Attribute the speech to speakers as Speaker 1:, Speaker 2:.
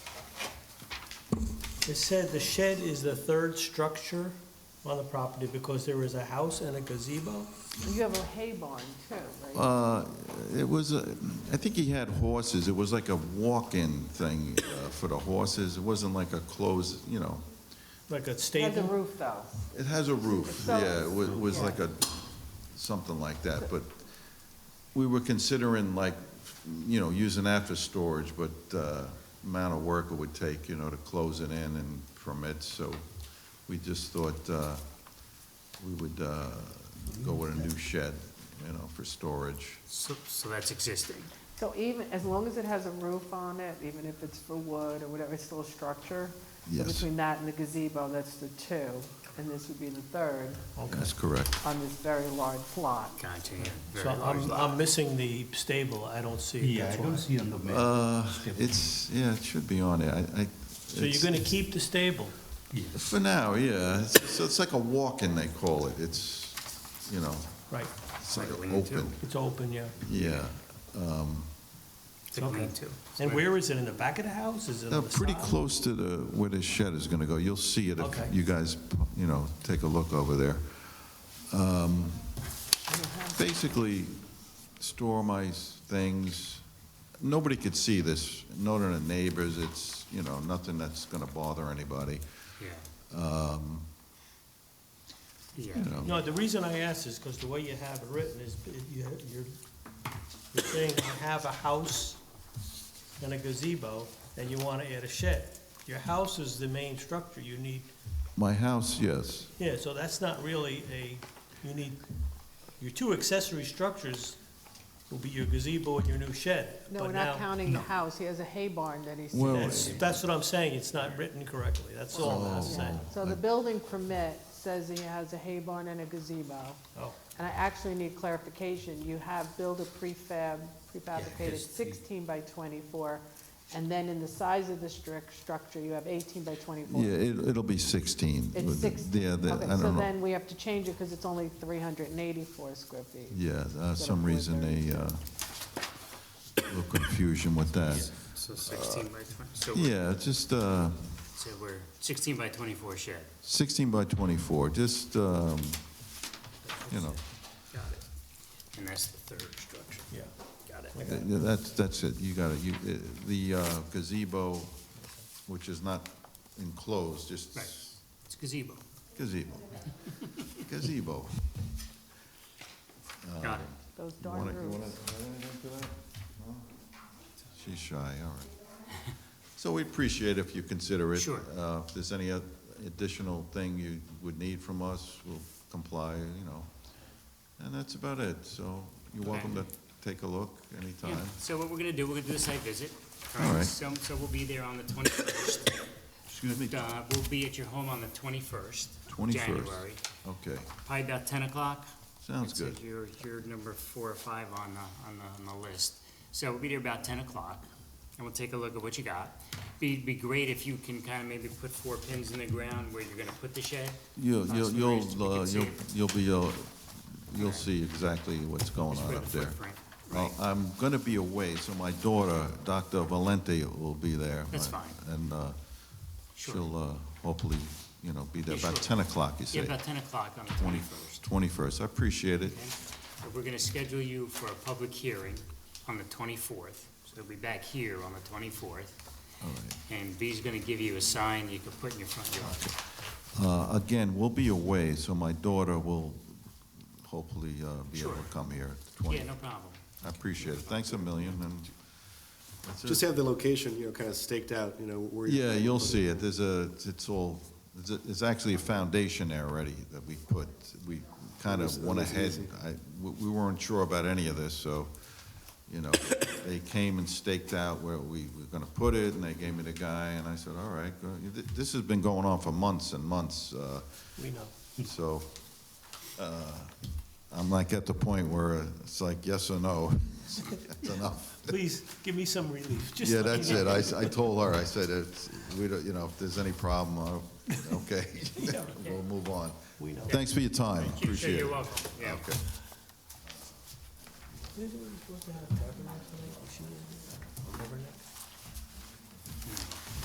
Speaker 1: It said the shed is the third structure on the property because there is a house and a gazebo.
Speaker 2: You have a hay barn too, right?
Speaker 3: Uh, It was, a- I think he had horses, it was like a walk-in thing uh, for the horses, it wasn't like a closed, you know,
Speaker 1: Like a
Speaker 2: Has a
Speaker 1: stable?
Speaker 2: roof though.
Speaker 3: it has a roof,
Speaker 2: So-
Speaker 3: yeah, it wa- it was
Speaker 2: Yeah.
Speaker 3: like a, something like that, but we were considering like, you know, using that for storage, but uh, amount of work it would take, you know, to close it in and permit, so we just thought uh, we would uh, go with a new shed, you know, for storage.
Speaker 4: So, so that's existing.
Speaker 2: So even, as long as it has a roof on it, even if it's for wood or whatever, it's still a structure? So
Speaker 3: Yes.
Speaker 2: Between that and the gazebo, that's the two, and this would be the third
Speaker 3: That's correct.
Speaker 2: on this very large plot.
Speaker 4: Gotcha, yeah,
Speaker 1: So um,
Speaker 4: very large
Speaker 1: I'm, I'm
Speaker 4: lot.
Speaker 1: missing the stable, I don't see it,
Speaker 5: Yeah, I
Speaker 1: that's
Speaker 5: don't
Speaker 1: why.
Speaker 5: see on the map.
Speaker 3: Uh, It's, yeah, it should be on there. I, I.
Speaker 1: So you're
Speaker 3: it's-
Speaker 1: gonna keep the stable?
Speaker 3: For now, yeah. It's- So it's like a walk-in, they call it. It's, you know,
Speaker 1: Right,
Speaker 3: it's like
Speaker 4: Like a lean-to.
Speaker 3: open.
Speaker 1: it's open, yeah.
Speaker 3: Yeah.
Speaker 4: It's a
Speaker 1: okay.
Speaker 4: lean-to.
Speaker 1: And where is it, in the back of the house, is it
Speaker 3: Now,
Speaker 1: on the
Speaker 3: pretty
Speaker 1: side?
Speaker 3: close to the, where the shed is gonna go. You'll see it
Speaker 1: Okay.
Speaker 3: if you guys, you know, take a look over there. Um, Basically, store my s- things. Nobody could see this, none of the neighbors. It's, you know, nothing that's gonna bother anybody,
Speaker 4: Yeah. Yeah,
Speaker 3: you know.
Speaker 1: No, the reason I asked is because the way you have it written is, it- you- you're, you're saying you have a house and a gazebo, and you want to add a shed. Your house is the main structure, you need,
Speaker 3: My house, yes.
Speaker 1: yeah, so that's not really a, you need, your two accessory structures will be your gazebo and your new shed.
Speaker 2: No,
Speaker 1: but
Speaker 2: we're not
Speaker 1: now-
Speaker 2: counting the house, he has a hay barn that he's.
Speaker 3: Well, Oh.
Speaker 1: That's, that's what I'm saying, it's not written correctly, that's all I'm saying.
Speaker 2: So the building permit says he has a hay barn and a gazebo.
Speaker 1: Oh,
Speaker 2: And I actually need clarification, you have build a prefab, prefabricated
Speaker 4: because the-
Speaker 2: sixteen by twenty-four, and then in the size of the strict structure, you have eighteen by twenty-four.
Speaker 3: Yeah, it, it'll be 16.
Speaker 2: It's
Speaker 3: with the-
Speaker 2: sixteen,
Speaker 3: Yeah, the-
Speaker 2: okay,
Speaker 3: I
Speaker 2: so
Speaker 3: don't know.
Speaker 2: then we have to change it, because it's only three hundred and eighty-four square feet.
Speaker 3: Yeah, uh, some reason they, uh, little confusion with that.
Speaker 4: so sixteen by twenty, so, we're-
Speaker 3: Yeah, just, uh,
Speaker 4: so we're sixteen by twenty-four shed.
Speaker 3: 16 by 24, just, um, you know,
Speaker 4: Got it. And that's the third structure.
Speaker 1: yeah.
Speaker 4: Got it.
Speaker 3: th- that's, that's it, you gotta, you, uh, the uh, gazebo, which is not enclosed, just
Speaker 4: Right, it's gazebo.
Speaker 3: gazebo. Gazebo.
Speaker 4: Got it.
Speaker 2: Those
Speaker 3: You wanna-
Speaker 2: darn
Speaker 3: you wanna
Speaker 2: roofs.
Speaker 3: add anything to that? No? She's shy, all right. So we appreciate if you consider it.
Speaker 4: Sure.
Speaker 3: Uh, If there's any oth- additional thing you would need from us, we'll comply, you know. And that's about it, so you're welcome to
Speaker 4: Okay.
Speaker 3: take a look
Speaker 4: Yeah,
Speaker 3: anytime.
Speaker 4: so what we're gonna do, we're gonna do a site visit.
Speaker 3: All right.
Speaker 4: So, so we'll be there on the twenty-first.
Speaker 3: Excuse me?
Speaker 4: Uh, we'll be at your home on the twenty-first.
Speaker 3: 21st.
Speaker 4: January,
Speaker 3: Okay,
Speaker 4: probably about ten o'clock.
Speaker 3: sounds
Speaker 4: It's like
Speaker 3: good.
Speaker 4: You're, you're number four or five on the, on the, on the list. So we'll be there about ten o'clock, and we'll take a look at what you got. Be, be great if you can kind of maybe put four pins in the ground where you're gonna put the shed.
Speaker 3: You'll,
Speaker 4: Uh,
Speaker 3: you'll,
Speaker 4: so we can
Speaker 3: you'll, uh,
Speaker 4: see
Speaker 3: you'll
Speaker 4: it.
Speaker 3: you'll be, uh, you'll see exactly what's going
Speaker 4: Just
Speaker 3: on
Speaker 4: for
Speaker 3: up
Speaker 4: the
Speaker 3: there.
Speaker 4: footprint,
Speaker 3: Well,
Speaker 4: right?
Speaker 3: I'm going to be away, so my daughter, Dr. Valente, will be there.
Speaker 4: That's
Speaker 3: My-
Speaker 4: fine.
Speaker 3: And uh,
Speaker 4: Sure.
Speaker 3: she'll uh, hopefully, you know, be there
Speaker 4: Yeah,
Speaker 3: about
Speaker 4: sure.
Speaker 3: 10 o'clock, you say?
Speaker 4: Yeah, about ten o'clock on the twenty-first.
Speaker 3: 21st, I appreciate it.
Speaker 4: We're gonna schedule you for a public hearing on the twenty-fourth, so we'll be back here on the twenty-fourth.
Speaker 3: All right.
Speaker 4: And B's gonna give you a sign you can put in your front yard.
Speaker 3: Uh, Again, we'll be away, so my daughter will hopefully uh, be able
Speaker 4: Sure.
Speaker 3: to come here at
Speaker 4: Yeah,
Speaker 3: 20.
Speaker 4: no problem.
Speaker 3: I appreciate it. Thanks a million, and
Speaker 6: Just
Speaker 3: that's it.
Speaker 6: have the location, you know, kind of staked out, you know, where. you're
Speaker 3: Yeah,
Speaker 6: gonna
Speaker 3: you'll
Speaker 6: put
Speaker 3: see it. There's a, it's all, there's a- there's actually a foundation there already that we put, we kind
Speaker 6: That was-
Speaker 3: of
Speaker 6: that
Speaker 3: went
Speaker 6: was
Speaker 3: ahead.
Speaker 6: easy.
Speaker 3: I, we- we weren't sure about any of this, so, you know, they came and staked out where we were gonna put it, and they gave me the guy, and I said, all right, go." Th- this has been going on for months and months, uh,
Speaker 1: We know.
Speaker 3: so, uh, I'm like at the point where it's like, yes or no, that's enough.
Speaker 1: Please, give me some relief, just.
Speaker 3: Yeah,
Speaker 1: let me
Speaker 3: that's
Speaker 1: know.
Speaker 3: it. I, s- I told her, I said, it's, we don't, you know, if there's any problem, I'll- okay,
Speaker 1: Yeah.
Speaker 3: we'll move on.
Speaker 1: We know.
Speaker 3: Thanks for your time,
Speaker 4: Sure,
Speaker 3: appreciate it.
Speaker 4: You're welcome, yeah.
Speaker 3: Okay.
Speaker 1: Didn't we supposed to have a governor tonight? Was she in? A governor?